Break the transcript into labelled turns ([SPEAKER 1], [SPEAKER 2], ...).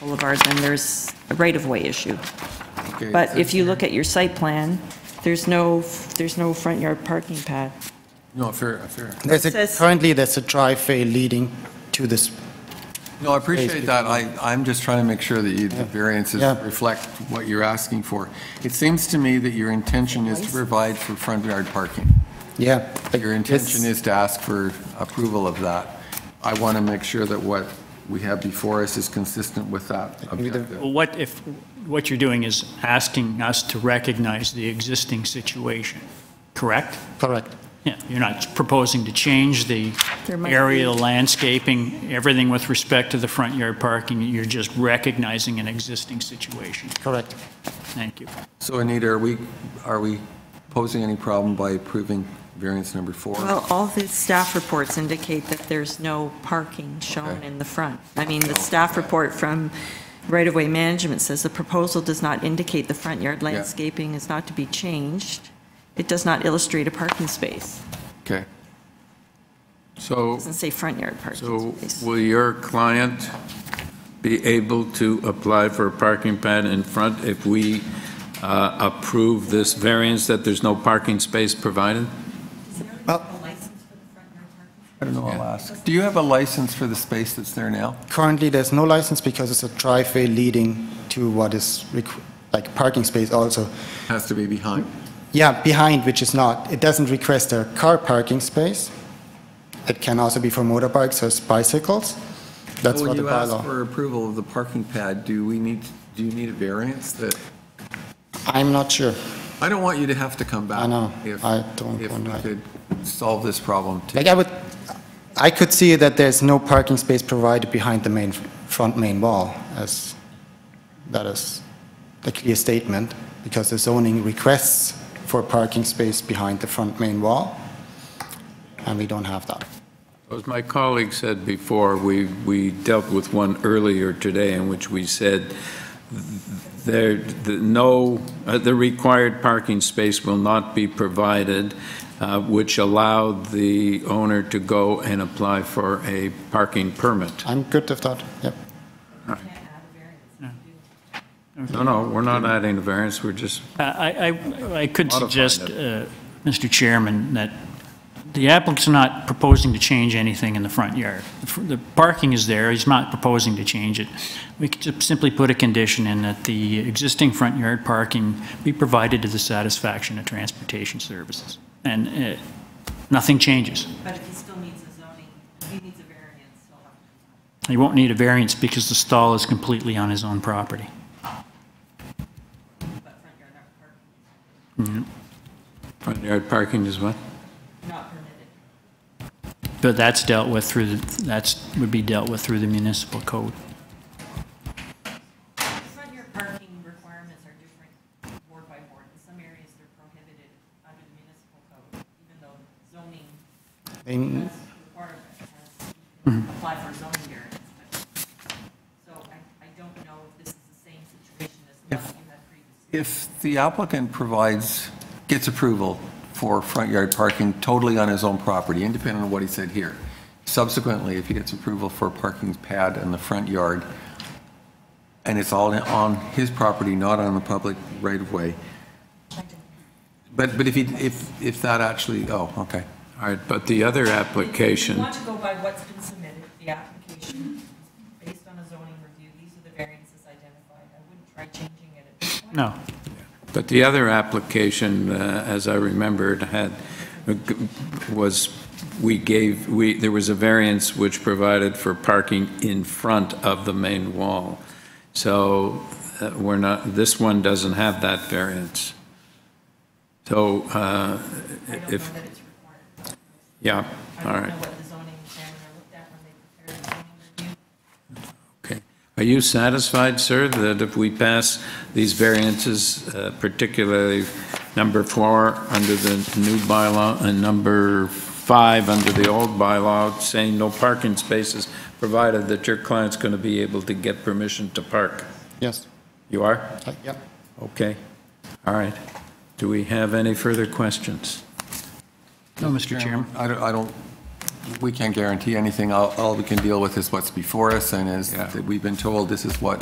[SPEAKER 1] Boulevard, then there's a right-of-way issue.
[SPEAKER 2] Okay,
[SPEAKER 1] But if you look at your site plan, there's no, there's no front yard parking pad.
[SPEAKER 2] No, fair, fair.
[SPEAKER 3] There's a,
[SPEAKER 1] says-
[SPEAKER 3] currently, there's a driveway leading to this,
[SPEAKER 2] No, I appreciate that. I, I'm just trying to make sure that you- the variances
[SPEAKER 3] Yeah.
[SPEAKER 2] reflect what you're asking for. It seems to me that your intention is to provide for front yard parking.
[SPEAKER 3] yeah. like
[SPEAKER 2] Your
[SPEAKER 3] this-
[SPEAKER 2] intention is to ask for approval of that. I want to make sure that what we have before us is consistent with that
[SPEAKER 3] can do that.
[SPEAKER 2] objective.
[SPEAKER 4] Well, What if, what you're doing is asking us to recognize the existing situation, correct?
[SPEAKER 3] Correct.
[SPEAKER 4] Yeah, you're not proposing to change the
[SPEAKER 1] There might
[SPEAKER 4] area,
[SPEAKER 1] be-
[SPEAKER 4] landscaping, everything with respect to the front yard parking, you're just recognizing an existing situation.
[SPEAKER 3] Correct.
[SPEAKER 4] Thank you.
[SPEAKER 2] So Anita, are we, are we posing any problem by approving variance number four?
[SPEAKER 1] Well, all the staff reports indicate that there's no parking shown
[SPEAKER 2] Okay.
[SPEAKER 1] in the front. I mean, the staff report from right-of-way management says the proposal does not indicate the front yard landscaping is not to be changed. It does not illustrate a parking space.
[SPEAKER 2] Okay. So.
[SPEAKER 1] Doesn't say front yard
[SPEAKER 5] So
[SPEAKER 1] parking space.
[SPEAKER 5] will your client be able to apply for a parking pad in front if we uh, approve this variance that there's no parking space provided?
[SPEAKER 2] I don't know, I'll ask. Do you have a license for the space that's there now?
[SPEAKER 3] Currently, there's no license because it's a driveway leading to what is, requ- like, parking space also.
[SPEAKER 2] Has to be behind.
[SPEAKER 3] Yeah, behind, which is not. It doesn't request a car parking space. It can also be for motorbikes or bicycles. That's what the
[SPEAKER 2] When you ask
[SPEAKER 3] bylaw.
[SPEAKER 2] for approval of the parking pad, do we need, do you need a variance that,
[SPEAKER 3] I'm not sure.
[SPEAKER 2] I don't want you to have to come back.
[SPEAKER 3] I know.
[SPEAKER 2] if-
[SPEAKER 3] I don't want
[SPEAKER 2] If
[SPEAKER 3] that.
[SPEAKER 2] we could solve this problem too.
[SPEAKER 3] Like, I would, I could see that there's no parking space provided behind the main, front main wall, as that is a clear statement, because the zoning requests for parking space behind the front main wall, and we don't have that.
[SPEAKER 5] As my colleague said before, we, we dealt with one earlier today in which we said there, the, no, uh, the required parking space will not be provided, uh, which allowed the owner to go and apply for a parking permit.
[SPEAKER 3] I'm good with that, yep.
[SPEAKER 5] No, no, we're not adding a variance, we're just,
[SPEAKER 4] Uh, I, I- I could
[SPEAKER 5] Modify
[SPEAKER 4] suggest, uh, Mr. Chairman, that the applicant's not proposing to change anything in the front yard. The fr- The parking is there, he's not proposing to change it. We could just simply put a condition in that the existing front yard parking be provided to the satisfaction of transportation services. And uh, nothing changes.
[SPEAKER 1] But if he still needs a zoning, he needs a variance, he'll have to
[SPEAKER 4] He won't need a variance because the stall is completely on his own property.
[SPEAKER 1] put front yard parking,
[SPEAKER 5] front yard parking is what?
[SPEAKER 1] not permitted.
[SPEAKER 4] But that's dealt with through, the- that's, would be dealt with through the municipal code.
[SPEAKER 1] Front yard parking requirements are different ward by ward. In some areas, they're prohibited under the municipal code, even though zoning
[SPEAKER 3] In-
[SPEAKER 1] has requirements, has, you can apply for zoning variance. but- So I, I don't know if this is the same situation as the one you had previously.
[SPEAKER 2] If the applicant provides, gets approval for front yard parking totally on his own property, independent of what he said here, subsequently, if he gets approval for a parking pad in the front yard, and it's all on his property, not on the public right-of-way, but, but if he, if, if that actually, oh, okay.
[SPEAKER 5] All right, but the other
[SPEAKER 1] If you
[SPEAKER 5] application,
[SPEAKER 1] want to go by what's been submitted, the application, based on a zoning review, these are the variances identified. I wouldn't try changing it at this point.
[SPEAKER 4] No,
[SPEAKER 5] but the other application, uh, as I remembered, had, was, we gave, we, there was a variance which provided for parking in front of the main wall. So uh, we're not, this one doesn't have that variance. So uh,
[SPEAKER 1] I don't know
[SPEAKER 5] if,
[SPEAKER 1] that it's required.
[SPEAKER 5] yeah, all
[SPEAKER 1] I
[SPEAKER 5] right.
[SPEAKER 1] don't know what the zoning examiner looked at when they prepared the zoning review.
[SPEAKER 5] Okay. Are you satisfied, sir, that if we pass these variances, uh, particularly number four under the new bylaw and number five under the old bylaw, saying no parking spaces, provided that your client's going to be able to get permission to park?
[SPEAKER 3] Yes,
[SPEAKER 5] You are?
[SPEAKER 3] I- yep.
[SPEAKER 5] Okay. All right. Do we have any further questions?
[SPEAKER 4] no, Mr. Chairman.
[SPEAKER 2] I don't, I don't, we can't guarantee anything. All, all we can deal with is what's before us and is
[SPEAKER 5] Yeah.
[SPEAKER 2] that we've been told this is what